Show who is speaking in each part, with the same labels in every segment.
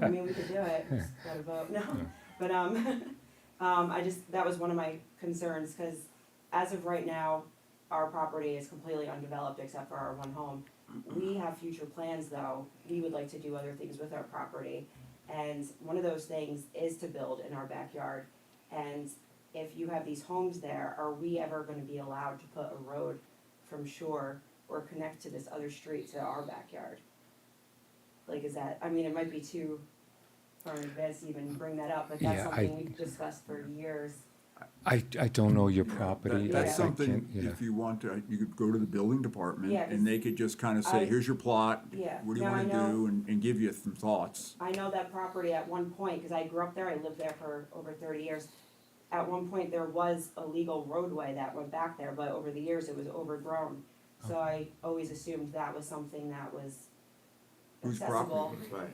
Speaker 1: I mean, we could do it, just gotta vote, no, but, um, um, I just, that was one of my concerns, cause as of right now, our property is completely undeveloped except for our one home.
Speaker 2: Mm-hmm.
Speaker 1: We have future plans though, we would like to do other things with our property, and one of those things is to build in our backyard. And if you have these homes there, are we ever gonna be allowed to put a road from shore or connect to this other street to our backyard? Like, is that, I mean, it might be too far in advance to even bring that up, but that's
Speaker 2: Yeah, I-
Speaker 1: something we've discussed for years.
Speaker 2: I, I don't know your
Speaker 3: Yeah, that-
Speaker 2: property. I-
Speaker 3: That's
Speaker 2: I
Speaker 3: something,
Speaker 2: can't- yeah.
Speaker 3: if you want to, you could go to the building department
Speaker 1: Yeah, 'cause
Speaker 3: and they could just kind of say,
Speaker 1: I-
Speaker 3: here's your plot.
Speaker 1: Yeah,
Speaker 3: What do you
Speaker 1: no, I
Speaker 3: wanna
Speaker 1: know.
Speaker 3: do and, and give you some thoughts.
Speaker 1: I know that property at one point, cause I grew up there, I lived there for over thirty years. At one point, there was a legal roadway that went back there, but over the years, it was overgrown. So I always assumed that was something that was
Speaker 3: Whose
Speaker 1: accessible, Oh,
Speaker 3: property?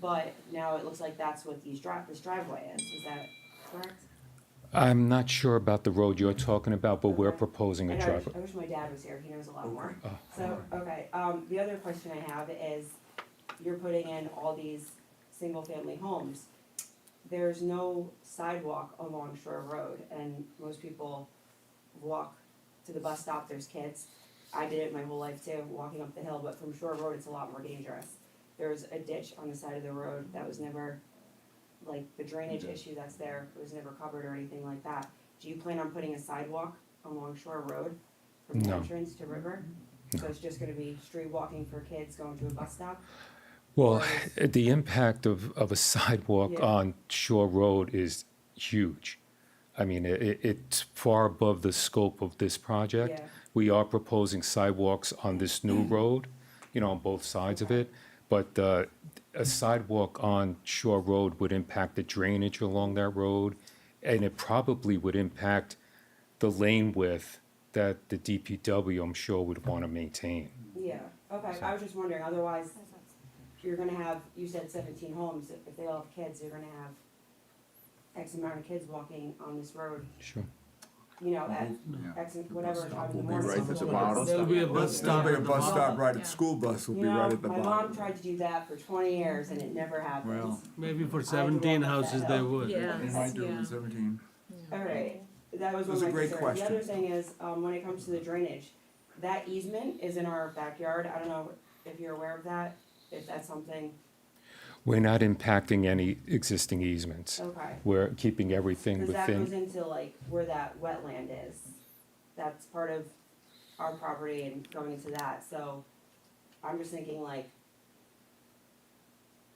Speaker 1: but now it looks like that's what these drive, this driveway is, is that correct?
Speaker 2: I'm not sure about the road you're talking about, but we're
Speaker 1: Okay.
Speaker 2: proposing
Speaker 1: I
Speaker 2: a
Speaker 1: know, I wish,
Speaker 2: driveway.
Speaker 1: I wish my dad was here, he knows a lot more.
Speaker 2: Oh,
Speaker 1: So, okay, um, the other question I have is, you're putting in all these single-family homes. There's no sidewalk along Shore Road, and most people walk to the bus stop, there's kids. I did it my whole life too, walking up the hill, but from Shore Road, it's a lot more dangerous. There's a ditch on the side of the road that was never, like, the drainage issue that's there, it was never covered or anything like that. Do you plan on putting a sidewalk along Shore Road from the
Speaker 2: No.
Speaker 1: entrance to River? So it's just gonna be street walking for kids going to a bus stop?
Speaker 2: Well, the impact of, of a sidewalk
Speaker 1: Yeah.
Speaker 2: on Shore Road is huge. I mean, it, it's far above the scope of this project.
Speaker 1: Yeah.
Speaker 2: We are proposing sidewalks on this new road, you know, on both sides of it. But, uh, a sidewalk on Shore Road would impact the drainage along that road. And it probably would impact the lane width that the DPW, I'm sure, would want to maintain.
Speaker 1: Yeah, okay, I was just wondering, otherwise, you're gonna have, you said seventeen homes, if if they all have kids, you're gonna have X amount of kids walking on this road,
Speaker 2: Sure.
Speaker 1: you know, at
Speaker 3: Yeah.
Speaker 1: X, whatever time in the
Speaker 3: Will be
Speaker 1: morning.
Speaker 3: right at the
Speaker 4: bottom.
Speaker 3: bottom.
Speaker 4: There'll be a
Speaker 3: Bus
Speaker 4: bus
Speaker 3: stop,
Speaker 4: stop
Speaker 3: a
Speaker 4: at the
Speaker 3: bus stop
Speaker 4: bottom.
Speaker 3: right at the
Speaker 4: Yeah.
Speaker 3: school bus will
Speaker 1: You
Speaker 3: be right
Speaker 1: know,
Speaker 3: at the
Speaker 1: my mom
Speaker 3: bottom.
Speaker 1: tried to do that for twenty years and it never happened.
Speaker 3: Well.
Speaker 4: Maybe for
Speaker 1: seventeen
Speaker 4: seventeen
Speaker 1: houses
Speaker 4: houses
Speaker 1: they
Speaker 4: they would.
Speaker 5: Yeah.
Speaker 3: They might do it in seventeen.
Speaker 1: Alright, that was one of
Speaker 3: Those
Speaker 1: my
Speaker 3: are great
Speaker 1: concerns. The other
Speaker 3: questions.
Speaker 1: thing is, um, when it comes to the drainage, that easement is in our backyard, I don't know if you're aware of that, if that's something,
Speaker 2: We're not impacting any existing easements.
Speaker 1: okay.
Speaker 2: We're keeping everything
Speaker 1: Cause that goes
Speaker 2: within,
Speaker 1: into like where that wetland is, that's part of our property and going into that, so I'm just thinking like.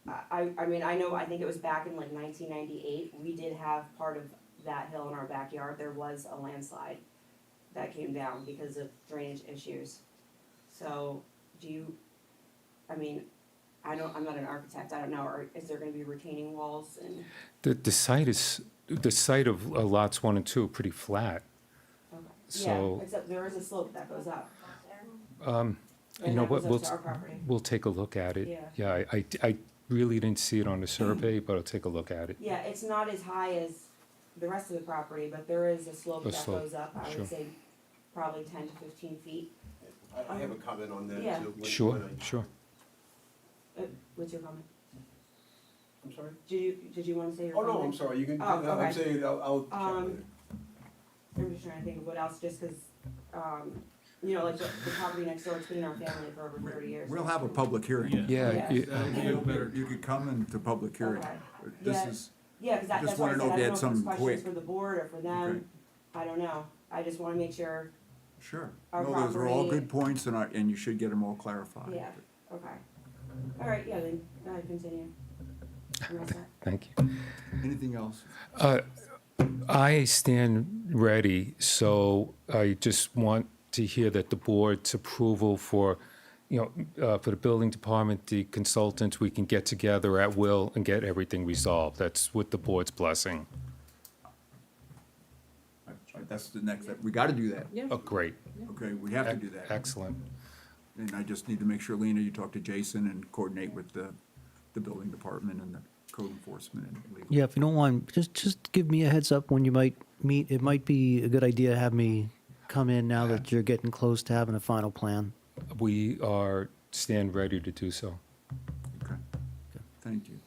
Speaker 1: I, I, I mean, I know, I think it was back in like nineteen ninety-eight, we did have part of that hill in our backyard, there was a landslide that came down because of drainage issues. So, do you, I mean, I don't, I'm not an architect, I don't know, or is there gonna be retaining walls and,
Speaker 2: the, the site is, the site of uh, lots one and two are pretty flat.
Speaker 1: okay.
Speaker 2: So- um,
Speaker 1: Yeah, except there is a slope that goes up.
Speaker 2: You know what, we'll,
Speaker 1: It's our property.
Speaker 2: we'll take a look at it.
Speaker 1: Yeah.
Speaker 2: Yeah, I, I, I really didn't see it on the survey, but I'll take a look at it.
Speaker 1: Yeah, it's not as high as the rest of the property, but there is a slope
Speaker 2: A
Speaker 1: that
Speaker 2: slope,
Speaker 1: goes up, I
Speaker 2: sure.
Speaker 1: would say probably ten to fifteen feet.
Speaker 6: I I have a comment on that
Speaker 1: Yeah.
Speaker 6: too. when-
Speaker 2: Sure,
Speaker 6: when I-
Speaker 2: sure.
Speaker 1: Uh, What's your comment?
Speaker 6: I'm sorry?
Speaker 1: Did you, did you wanna say your
Speaker 6: Oh,
Speaker 1: comment?
Speaker 6: no, I'm sorry, you can,
Speaker 1: Oh, okay.
Speaker 6: I'm saying, I'll, I'll check
Speaker 1: Um,
Speaker 6: later.
Speaker 1: I'm just trying to think of what else, just cause, um, you know, like the, the property next door, it's been in our family for over thirty years.
Speaker 3: We'll have a public hearing.
Speaker 2: Yeah,
Speaker 1: Yeah.
Speaker 2: y-
Speaker 3: You could come into public hearing.
Speaker 1: Okay.
Speaker 3: This
Speaker 1: Yeah.
Speaker 3: is,
Speaker 1: Yeah, cause that,
Speaker 3: Just
Speaker 1: that's why I
Speaker 3: wanna
Speaker 1: said,
Speaker 3: know
Speaker 1: I
Speaker 3: if
Speaker 1: don't know
Speaker 3: you had
Speaker 1: if there's
Speaker 3: something
Speaker 1: questions
Speaker 3: quick.
Speaker 1: for the board or for
Speaker 3: Okay.
Speaker 1: them, I don't know, I just wanna make sure,
Speaker 3: sure.
Speaker 1: Our
Speaker 3: No, those are all
Speaker 1: property-
Speaker 3: good points and I, and you should get them all clarified.
Speaker 1: yeah, okay. Alright, yeah, then, go ahead, continue. You want that?
Speaker 2: thank you.
Speaker 3: Anything else?
Speaker 2: I stand ready, so I just want to hear that the board's approval for, you know, uh, for the building department, the consultants, we can get together at will and get everything resolved. That's with the board's blessing.
Speaker 3: That's the next, step. we gotta do that.
Speaker 5: Yeah.
Speaker 2: Oh, great.
Speaker 3: Okay, we have to do that.
Speaker 2: Excellent.
Speaker 3: And I just need to make sure, Lena, you talk to Jason and coordinate with the, the building department and the code enforcement and legal.
Speaker 7: Yeah, if you don't mind, just just give me a heads up when you might meet. It might be a good idea to have me come in now that you're getting close to having a final plan.
Speaker 2: We are, stand ready to do so.
Speaker 3: Okay, thank you.